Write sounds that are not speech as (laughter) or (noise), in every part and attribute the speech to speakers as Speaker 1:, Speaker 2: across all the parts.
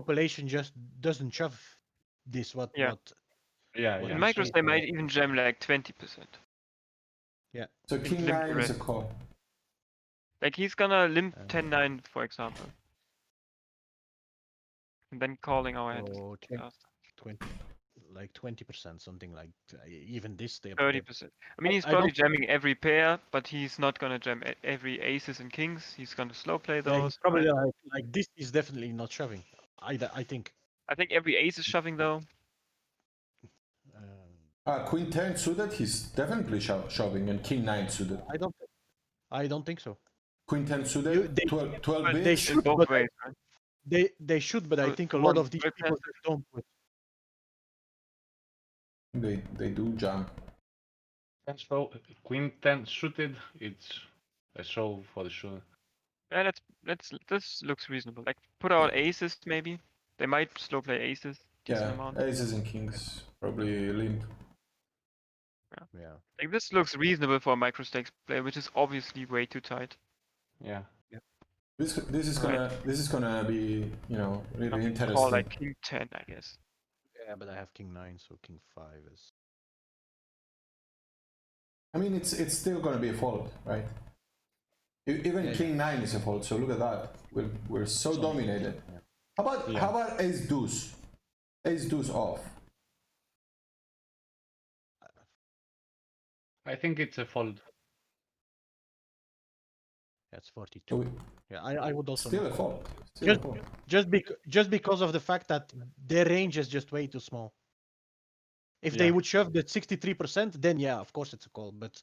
Speaker 1: population just doesn't shove this what
Speaker 2: Yeah.
Speaker 1: what
Speaker 3: Yeah,
Speaker 1: Well,
Speaker 3: yeah.
Speaker 2: In micros,
Speaker 1: shit,
Speaker 2: they might
Speaker 1: yeah.
Speaker 2: even jam like 20%.
Speaker 4: So king
Speaker 2: Limp
Speaker 4: nine is a
Speaker 2: red.
Speaker 4: call.
Speaker 2: Like he's gonna limp
Speaker 1: Uh,
Speaker 2: 10 9, for example. And then calling our hand. is
Speaker 1: or oh, twen-
Speaker 2: faster.
Speaker 1: 20 like 20% something like uh, even this they
Speaker 2: 30%. I mean, he's
Speaker 1: I don't-
Speaker 2: probably jamming every pair, but he's not gonna jam e- every aces and kings. He's gonna slow play those.
Speaker 1: probably like, like this is definitely not shoving either i think
Speaker 2: I think every ace is shoving
Speaker 1: (laughs)
Speaker 2: though.
Speaker 1: um,
Speaker 4: Uh, queen ten suited, he's definitely sho- shoving, and king nine suited.
Speaker 1: i don't i don't think so
Speaker 4: Queen ten
Speaker 1: You-
Speaker 4: suited,
Speaker 1: they-
Speaker 4: 12, 12
Speaker 1: but they
Speaker 4: bigs.
Speaker 1: should,
Speaker 2: in both
Speaker 1: but-
Speaker 2: ways. Right?
Speaker 1: they they should but i
Speaker 2: So
Speaker 1: think a lot
Speaker 2: one
Speaker 1: of these
Speaker 2: bypass
Speaker 1: people just don't do it.
Speaker 4: They they do jump.
Speaker 3: That's all- Queen 10 suited, it's a solve for sure.
Speaker 2: Yeah, that's that's this looks reasonable. Like put out aces maybe. They might slow play aces. Decent
Speaker 4: Yeah,
Speaker 2: amount.
Speaker 4: aces and kings probably limp.
Speaker 1: yeah
Speaker 2: Like this looks reasonable for a micro stakes play, which is obviously way too tight.
Speaker 3: Yeah.
Speaker 4: This this is
Speaker 2: Right.
Speaker 4: gonna this is gonna be you know
Speaker 2: I
Speaker 4: really
Speaker 2: mean,
Speaker 4: interesting.
Speaker 2: Call like king ten, I guess.
Speaker 1: yeah but i have king 9 so king 5 is
Speaker 4: I mean it's it's still gonna be a fold, right? E- Even
Speaker 1: Yeah, yeah.
Speaker 4: king nine is a fold. So look at that. We're we're so
Speaker 1: Solid.
Speaker 4: dominated.
Speaker 1: Yeah.
Speaker 4: How about
Speaker 1: Yeah.
Speaker 4: how about ace deuce? Ace deuce off.
Speaker 3: I think it's a fold.
Speaker 1: that's
Speaker 4: So
Speaker 1: 42
Speaker 4: we,
Speaker 1: yeah i i would also
Speaker 4: still a
Speaker 1: not-
Speaker 4: fold. Still a
Speaker 1: Just-
Speaker 4: fold.
Speaker 1: just bec- just because of the fact that their range is just way too small. If they
Speaker 3: Yeah.
Speaker 1: would shove the 63%, then yeah, of course it's a call, but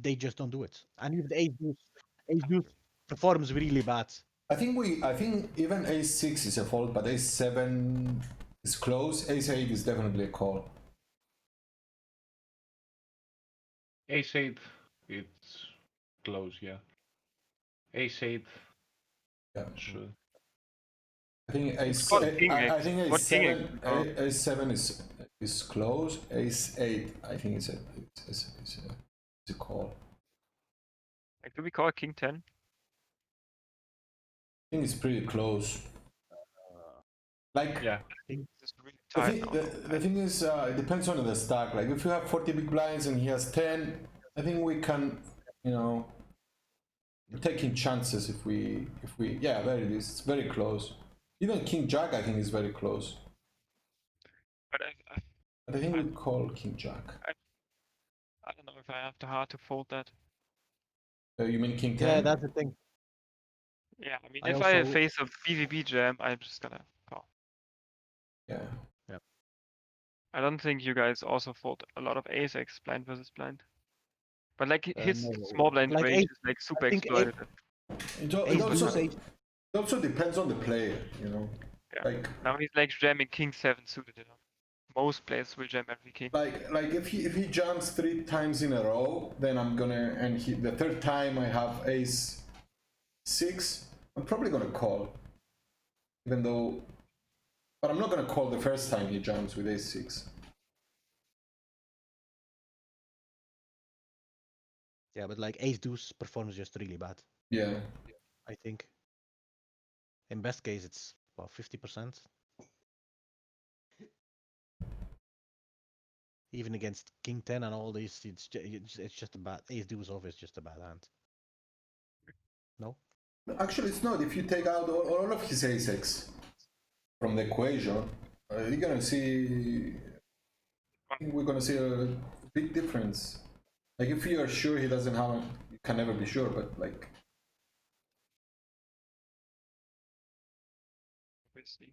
Speaker 1: they just don't do it. And if the ace deuce, ace deuce performs really bad,
Speaker 4: I think we I think even ace six is a fold, but ace seven is close. Ace eight is definitely a call.
Speaker 3: Ace 8, it's close, yeah. Ace 8,
Speaker 4: Yeah.
Speaker 3: sure.
Speaker 4: I think ace.
Speaker 2: called
Speaker 4: eh,
Speaker 2: king
Speaker 4: I, I
Speaker 2: eight.
Speaker 4: think
Speaker 2: What
Speaker 4: ace
Speaker 2: king
Speaker 4: seven.
Speaker 2: eight? Oh.
Speaker 4: a- Ace seven is is close. Ace eight. I think is a it's, it's, it's a it's a call.
Speaker 2: Like do we call king ten?
Speaker 4: I think it's pretty close. Like
Speaker 3: Yeah,
Speaker 2: This is really
Speaker 4: the,
Speaker 2: tight.
Speaker 4: thi-
Speaker 2: now.
Speaker 4: the, the thing is, uh, it depends on the stack. Like if you have forty big blinds and he has ten, I think we can, you know, we're taking chances if we if we yeah, there it is. It's very close. Even king jack, I think, is very close.
Speaker 2: But I, I,
Speaker 4: But I think we call king jack.
Speaker 2: I don't know if I have the heart to fold that.
Speaker 4: Uh, you mean king ten?
Speaker 1: yeah, that's the thing.
Speaker 2: Yeah, I mean,
Speaker 1: I
Speaker 2: if I
Speaker 1: also-
Speaker 2: face a BVB jam, I'm just gonna call.
Speaker 4: yeah.
Speaker 2: I don't think you guys also fold a lot of ace x blind versus blind. But like
Speaker 1: Uh,
Speaker 2: his
Speaker 1: no,
Speaker 2: small blind
Speaker 1: like
Speaker 2: range
Speaker 1: ace-
Speaker 2: is like super
Speaker 1: think ace-
Speaker 2: exploited.
Speaker 4: It, al- it
Speaker 1: Ace
Speaker 4: also
Speaker 1: deuce, ace-
Speaker 4: it also depends on the player, you know.
Speaker 2: Yeah.
Speaker 4: Like
Speaker 2: Now he's like jamming king seven suited. You know? Most players will jam every king.
Speaker 4: like like if he if he jumps three times in a row, then I'm gonna and he the third time I have ace six, I'm probably gonna call. Even though but I'm not gonna call the first time he jumps with ace six.
Speaker 1: yeah, but like ace deuce performs just really bad,
Speaker 4: Yeah.
Speaker 1: I think. In best case, it's about 50%. Even against king 10 and all this, it's ju- it's it's just a bad ace deuce off is just a bad hand.
Speaker 4: Actually it's not. If you take out all, all of his ace six from the equation, uh, you're gonna see I think we're gonna see a big difference. Like if you're sure he doesn't have you can never be sure, but like
Speaker 2: Obviously,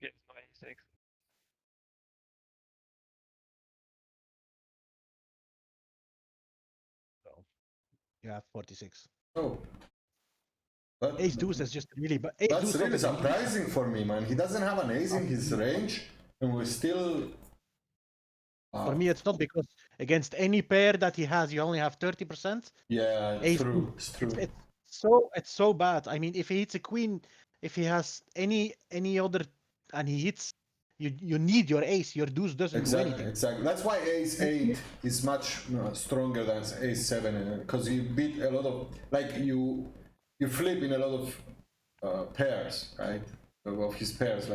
Speaker 2: he has no ace x.
Speaker 1: You have 46.
Speaker 4: Oh. That,
Speaker 1: Ace deuce is just really bad. Ace
Speaker 4: that's
Speaker 1: deuce
Speaker 4: really
Speaker 1: off is really-
Speaker 4: surprising for me, man. He doesn't have an ace in
Speaker 1: Oh.
Speaker 4: his range, and we're still.
Speaker 1: For
Speaker 4: Wow.
Speaker 1: me, it's not because against any pair that he has, you only have 30%.
Speaker 4: Yeah, it's
Speaker 1: ace
Speaker 4: true. It's true.
Speaker 1: It's so it's so bad. I mean, if he hits a queen, if he has any any other, and he hits, you you need your ace. Your deuce doesn't do
Speaker 4: Exactly,
Speaker 1: anything.
Speaker 4: exactly. That's why ace eight is much you know, stronger than ace seven, because you beat a lot of like you you flip in a lot of uh, pairs, right? of his pairs,